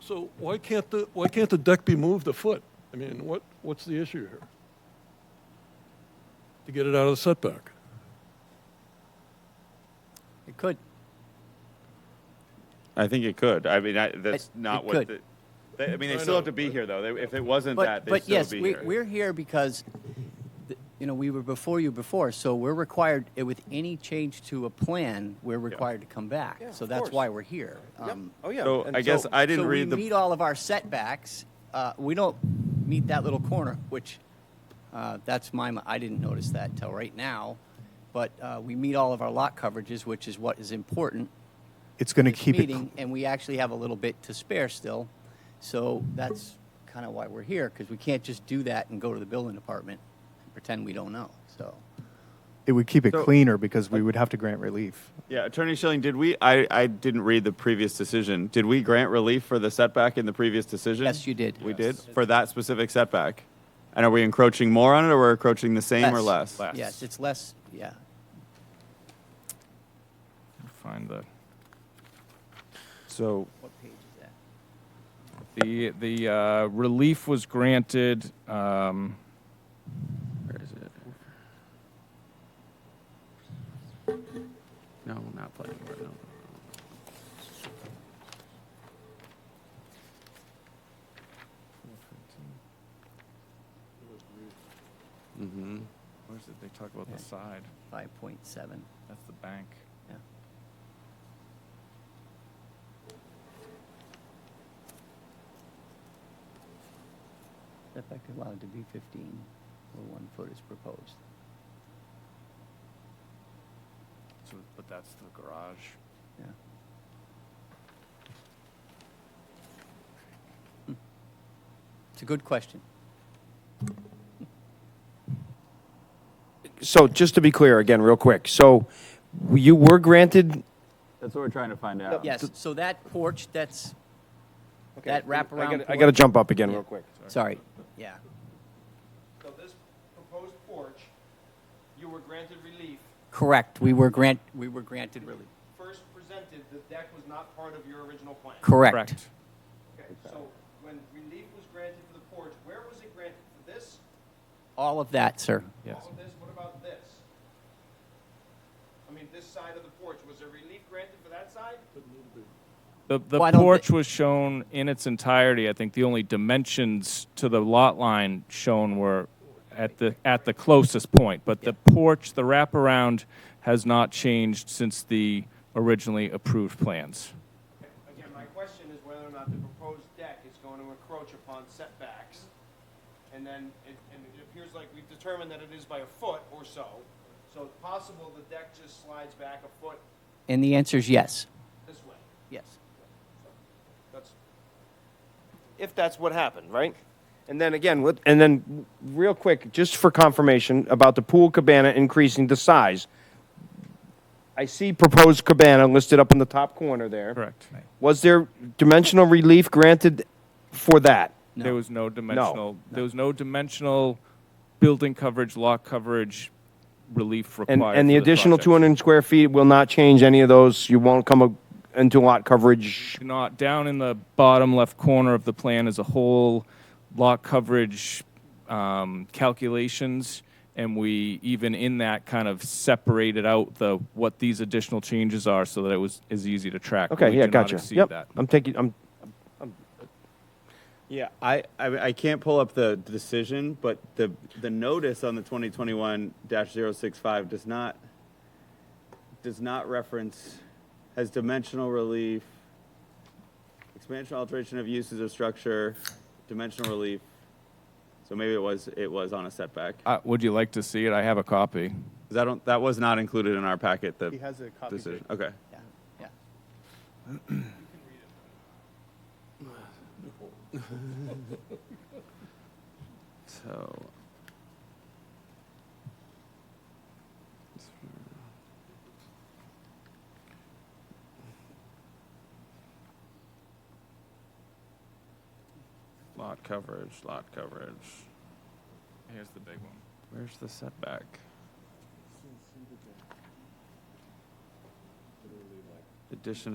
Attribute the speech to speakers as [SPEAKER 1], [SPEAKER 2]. [SPEAKER 1] So why can't the, why can't the deck be moved a foot? I mean, what, what's the issue here? To get it out of the setback?
[SPEAKER 2] It could.
[SPEAKER 3] I think it could. I mean, I, that's
[SPEAKER 2] It-
[SPEAKER 3] not
[SPEAKER 2] it
[SPEAKER 3] what.
[SPEAKER 2] could.
[SPEAKER 3] The, they, I mean,
[SPEAKER 1] I
[SPEAKER 3] they still
[SPEAKER 1] know,
[SPEAKER 3] have to be
[SPEAKER 1] but-
[SPEAKER 3] here, though. They, if it wasn't that,
[SPEAKER 2] But,
[SPEAKER 3] they'd
[SPEAKER 2] but
[SPEAKER 3] still
[SPEAKER 2] yes,
[SPEAKER 3] be
[SPEAKER 2] we,
[SPEAKER 3] here.
[SPEAKER 2] we're here because, th- you know, we were before you before, so we're required, eh, with any change to a plan, we're required to come back.
[SPEAKER 4] Yeah,
[SPEAKER 2] So
[SPEAKER 4] of
[SPEAKER 2] that's
[SPEAKER 4] course.
[SPEAKER 2] why we're here.
[SPEAKER 4] Yep.
[SPEAKER 2] Um,
[SPEAKER 4] Oh, yeah.
[SPEAKER 3] So
[SPEAKER 4] And
[SPEAKER 3] I guess I didn't
[SPEAKER 2] so
[SPEAKER 3] read
[SPEAKER 2] we
[SPEAKER 3] the.
[SPEAKER 2] meet all of our setbacks. Uh, we don't meet that little corner, which uh, that's my. mi- I didn't notice that till right now, but uh, we meet all of our lot coverages, which is what is important.
[SPEAKER 5] It's going to
[SPEAKER 2] this
[SPEAKER 5] keep it.
[SPEAKER 2] meeting, and we actually have a little bit to spare still, so that's kind of why we're here because we can't just do that and go to the building department and pretend we don't know. So
[SPEAKER 5] It would keep it
[SPEAKER 3] So-
[SPEAKER 5] cleaner because we would have to grant relief.
[SPEAKER 3] yeah, Attorney Schilling, did we? I, I didn't read the previous decision. Did we grant relief for the setback in the previous decision?
[SPEAKER 2] Yes, you did.
[SPEAKER 3] We
[SPEAKER 2] Yes.
[SPEAKER 3] did for that specific setback. And are we encroaching more on it, or we're encroaching the same or less?
[SPEAKER 2] Yes, it's less. Yeah,
[SPEAKER 6] Find the
[SPEAKER 3] So
[SPEAKER 2] what page is that?
[SPEAKER 6] the the uh, relief was granted. Um, where is it?
[SPEAKER 7] No, not planning board. No. Mm-hmm.
[SPEAKER 6] Where is it? They talk about the side.
[SPEAKER 2] Five point seven.
[SPEAKER 6] That's the bank.
[SPEAKER 2] Yeah. Setback allowed to be fifteen, where one foot is proposed.
[SPEAKER 6] So, but that's the garage.
[SPEAKER 2] Yeah. It's a good question.
[SPEAKER 4] so just to be clear again, real quick. So you were granted.
[SPEAKER 3] that's what we're trying to find out.
[SPEAKER 2] Yes, so that porch, that's, that
[SPEAKER 4] I
[SPEAKER 2] wraparound
[SPEAKER 4] gotta- I got to
[SPEAKER 2] porch-
[SPEAKER 4] jump up again,
[SPEAKER 2] Yeah.
[SPEAKER 4] real quick.
[SPEAKER 2] Sorry, yeah.
[SPEAKER 8] So this proposed porch, you were granted relief.
[SPEAKER 2] Correct, we were grant, we were granted relief.
[SPEAKER 8] First presented, the deck was not part of your original plan.
[SPEAKER 2] Correct.
[SPEAKER 6] Correct.
[SPEAKER 8] Okay, so when relief was granted for the porch, where was it granted for this?
[SPEAKER 2] All of that, sir.
[SPEAKER 6] Yes.
[SPEAKER 8] All of this, what about this? I mean, this side of the porch, was there relief granted for that side?
[SPEAKER 6] The, the
[SPEAKER 2] Well, I don't thi-
[SPEAKER 6] porch was shown in its entirety. I think the only dimensions to the lot line shown were at the at the closest point, but the porch, the wraparound, has not changed since the originally approved plans.
[SPEAKER 8] Again, my question is whether or not the proposed deck is going to encroach upon setbacks. And then, it- and it appears like we've determined that it is by a foot or so. So it's possible the deck just slides back a foot
[SPEAKER 2] And the answer is yes,
[SPEAKER 8] this way.
[SPEAKER 2] yes.
[SPEAKER 8] That's. If that's what happened, right?
[SPEAKER 4] And then again, with, and then real quick, just for confirmation about the pool cabana increasing the size. I see proposed cabana listed up in the top corner there.
[SPEAKER 6] Correct.
[SPEAKER 4] Was there dimensional relief granted for that?
[SPEAKER 6] There was no dimensional. There was no dimensional building coverage, lot coverage relief required.
[SPEAKER 4] And, and the
[SPEAKER 6] for
[SPEAKER 4] additional
[SPEAKER 6] project.
[SPEAKER 4] 200 square feet will not change any of those. You won't come a- into lot coverage.
[SPEAKER 6] not down in the bottom left corner of the plan is a whole lot coverage um, calculations and we even in that kind of separated out the what these additional changes are so that it was is easy to track but
[SPEAKER 4] Okay,
[SPEAKER 6] we
[SPEAKER 4] yeah,
[SPEAKER 6] do not
[SPEAKER 4] gotcha.
[SPEAKER 6] exceed
[SPEAKER 4] Yep.
[SPEAKER 6] that.
[SPEAKER 4] I'm taking, I'm,
[SPEAKER 3] Yeah, I, I, I can't pull up the decision, but the, the notice on the 2021-065 does not, does not reference, has dimensional relief, expansion alteration of uses of structure, dimensional relief. So maybe it was, it was on a setback.
[SPEAKER 6] Uh, would you like to see it i have a copy
[SPEAKER 3] That don't, that was not included in our packet, the
[SPEAKER 5] He has a copy,
[SPEAKER 3] decision. Okay.
[SPEAKER 2] Yeah, yeah.
[SPEAKER 3] So.
[SPEAKER 6] lot coverage lot coverage here's the big one
[SPEAKER 3] Where's the setback? Addition